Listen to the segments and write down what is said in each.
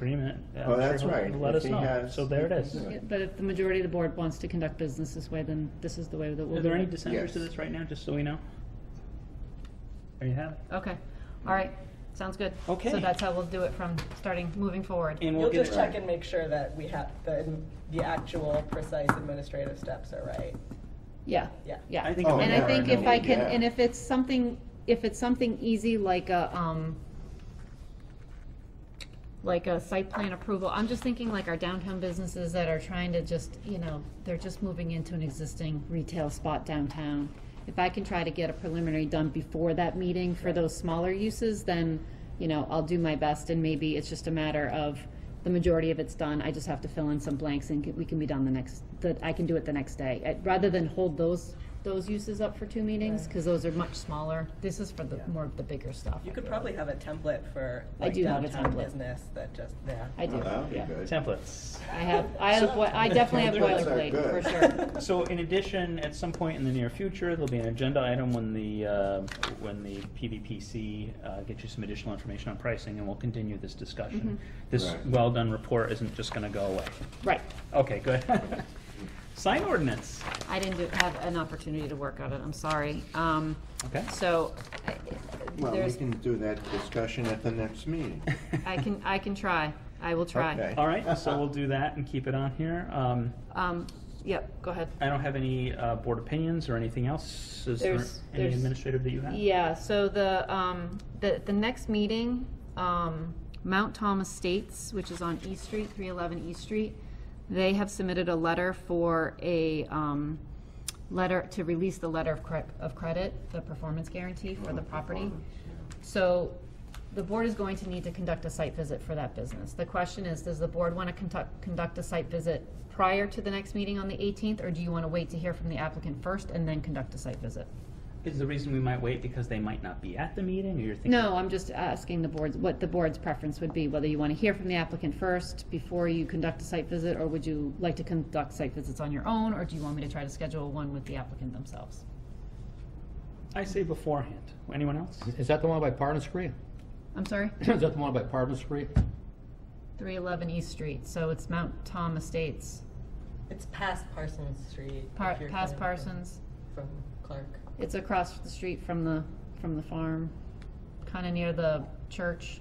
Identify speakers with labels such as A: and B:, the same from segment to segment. A: agreement. yeah,
B: Oh, that's
A: sure,
B: right.
A: Let us
B: If he
A: know.
B: has-
A: So there it
B: he can
A: is.
B: do it.
C: But if the majority of the board wants to conduct business this way, then this is the way that we'll do it.
A: Are there any dissenters to
B: Yes.
A: this right now, just so we know? There you have it.
D: Okay, all right, sounds good.
A: Okay.
D: So that's how we'll do it from starting, moving forward.
A: And we'll
E: You'll
A: get
E: just
A: it.
E: check and make sure that we have, the, the actual precise administrative steps are right.
C: Yeah.
E: Yeah.
C: Oh, Yeah.
A: I think I'm
C: And
A: gonna
C: I think
A: recommend
C: if I
B: it,
C: can,
B: yeah.
C: and if it's something, if it's something easy like a, um, like a site plan approval, I'm just thinking like our downtown businesses that are trying to just, you know, they're just moving into an existing retail spot downtown. If I can try to get a preliminary done before that meeting for those smaller uses, then, you know, I'll do my best and maybe it's just a matter of the majority of it's done, I just have to fill in some blanks and we can be done the next, that I can do it the next day. Uh, Rather than hold those, those uses up for two meetings, because those are much smaller. This is for the, more of the bigger stuff.
E: You could probably have a template for
C: I
E: like
C: do have a
E: downtown
C: template.
E: business that just, yeah.
C: I do,
B: Oh, that would be
C: yeah.
B: good.
A: Templates.
C: I have, I have, boi- I definitely have
B: Templates are
C: boilerplate,
B: good.
C: for sure.
A: So in addition, at some point in the near future, there'll be an agenda item when the, uh, when the PVPC uh, gets you some additional information on pricing, and we'll continue this
D: Mm-hmm.
A: discussion. This
B: Right.
A: well-done report isn't just gonna go away.
C: Right.
A: Okay, good. Sign ordinance.
D: I didn't do- have an opportunity to work on it, I'm sorry. Um,
A: Okay.
D: So, I-
B: Well, we
D: there's,
B: can do that discussion at the next meeting.
D: I can, I can try, I will try.
B: Okay.
A: All right, so we'll do that and keep it on here. Um,
D: Um, Yep, go ahead.
A: I don't have any uh, board opinions or anything else. Is there
D: There's-
A: any
D: there's-
A: administrative that you have?
D: Yeah, so the, um, the, the next meeting, um, Mount Thomas Estates, which is on East Street, three eleven East Street, they have submitted a letter for a, um, letter, to release the letter of cre- of credit, the performance guarantee for the property.
B: Performance,
D: So the board is going to need to conduct a site visit for that business. The question is, does the board want to conduct, conduct a site visit prior to the next meeting on the eighteenth? Or do you want to wait to hear from the applicant first and then conduct a site visit?
A: Is the reason we might wait because they might not be at the meeting, or you're thinking?
C: No, I'm just asking the boards, what the board's preference would be, whether you want to hear from the applicant first before you conduct a site visit, or would you like to conduct site visits on your own, or do you want me to try to schedule one with the applicant themselves?
A: I say beforehand. Anyone else?
F: Is that the one by Pardon Street?
D: I'm sorry?
F: Is that the one by Pardon Street?
D: 311 East Street, so it's Mount Tom Estates,
E: It's past Parsons Street. if
D: Par-
E: you're
D: past
E: coming from-
D: Parsons.
E: From Clark.
C: It's across the street from the, from the farm,
D: kind of near the church.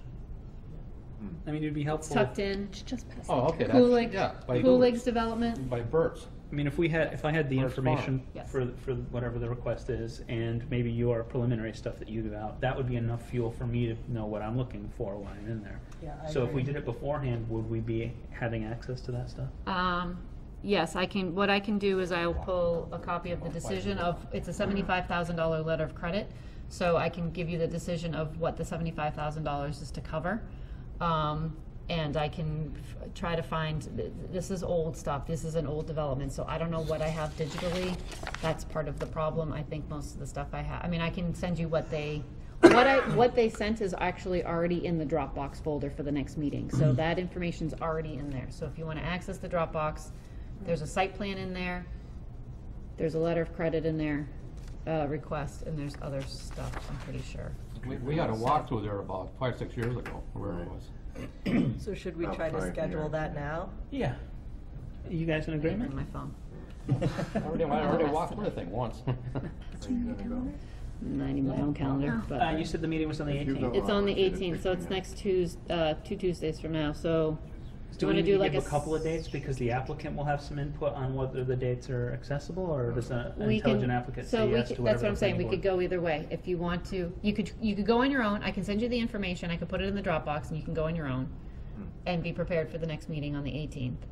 A: I mean, it'd be helpful. if-
C: tucked in, just past.
F: Oh, okay, that's-
C: Kulig,
F: yeah, by-
C: Kulig's development,
F: By Burt's.
A: I mean, if we had, if I had the
F: Or farm.
A: information
D: Yes.
A: for, for whatever the request is, and maybe your preliminary stuff that you do out, that would be enough fuel for me to know what I'm looking for when I'm in there.
E: Yeah, I
A: So if we
E: agree.
A: did it beforehand, would we be having access to that stuff?
D: Um, Yes, I can, what I can do is I will pull a copy of the decision of, it's a $75,000 letter of credit, so I can give you the decision of what the $75,000 is to cover. Um, And I can f- try to find, th- this is old stuff, this is an old development, so I don't know what I have digitally. That's part of the problem, I think most of the stuff I have, I mean, I can send you what they,
C: what I, what they sent is actually already in the Dropbox folder for the next meeting, so that information's
D: already in there. So if you want to access the Dropbox, there's a site plan in there,
C: There's a letter of credit in there.
D: uh, request, and there's other stuff, I'm pretty sure.
F: We, we had a walkthrough there about five, six years ago, wherever it was.
B: Hmm.
E: So should we
B: About
E: try to
B: five
E: schedule
B: years.
E: that now?
A: Yeah. You guys in
D: I didn't bring
A: agreement?
D: my phone.
F: I already, I already walked through the thing once.
B: Are you gonna go?
C: I need my own calendar, but.
A: Uh, you said the meeting was on the
B: If you
A: eighteenth.
B: go-
C: It's on the
B: Oh, it's
C: eighteenth, so it's
B: 15th.
C: next Tues, uh, two Tuesdays from now, so.
A: Do we
C: wanna
A: need to give
C: like
A: a couple of
C: s-
A: dates, because the applicant will have some input on whether the dates are accessible, or does a- an
C: we can-
A: intelligent applicant
C: so
A: say
C: we
A: yes
C: could-
A: to whatever
C: That's what I'm
A: the
C: saying, we
A: planning
C: could
A: board-
C: go either way, if you want to, you could, you could go on your own, I can send you the information, I could put it in the Dropbox, and you can go on your own,
A: Hmm.
C: and be prepared for the next meeting on the eighteenth.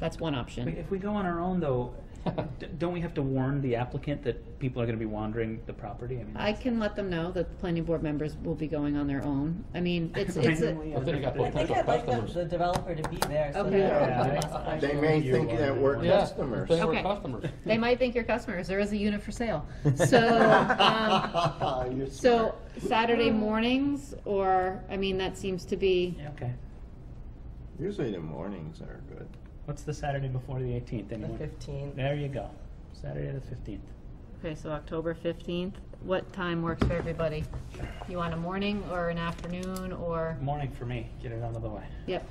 C: That's one
A: But
C: option.
A: If we go on our own, though, d- don't we have to warn the applicant that people are gonna be wandering the property? mean,
C: I can let them know that the planning board members will be going on their own, I mean, it's, it's, a-
A: randomly
F: But then you got
A: on a
E: I think
F: Potential
E: I'd like the-
F: customers.
E: the developer to be there. so
C: Okay.
E: that-
A: Yeah.
B: They may
A: You
B: think
A: are
B: that
A: the
B: we're
A: one.
F: Yeah,
B: customers.
F: They were
D: Okay.
F: customers.
C: they might think you're customers, there is a unit for sale, so, um,
B: You're
C: So
B: smart.
C: Saturday mornings, or, I mean, that seems to be,
A: Yeah, okay.
B: Usually the mornings are good.
A: What's the Saturday before the eighteenth,
E: The
A: anyone?
E: fifteenth.
A: There you go. Saturday the fifteenth.
C: Okay, so October fifteenth, what time works for everybody? You want a morning or an afternoon or,
A: Morning for me, get it out of the way.
C: yep,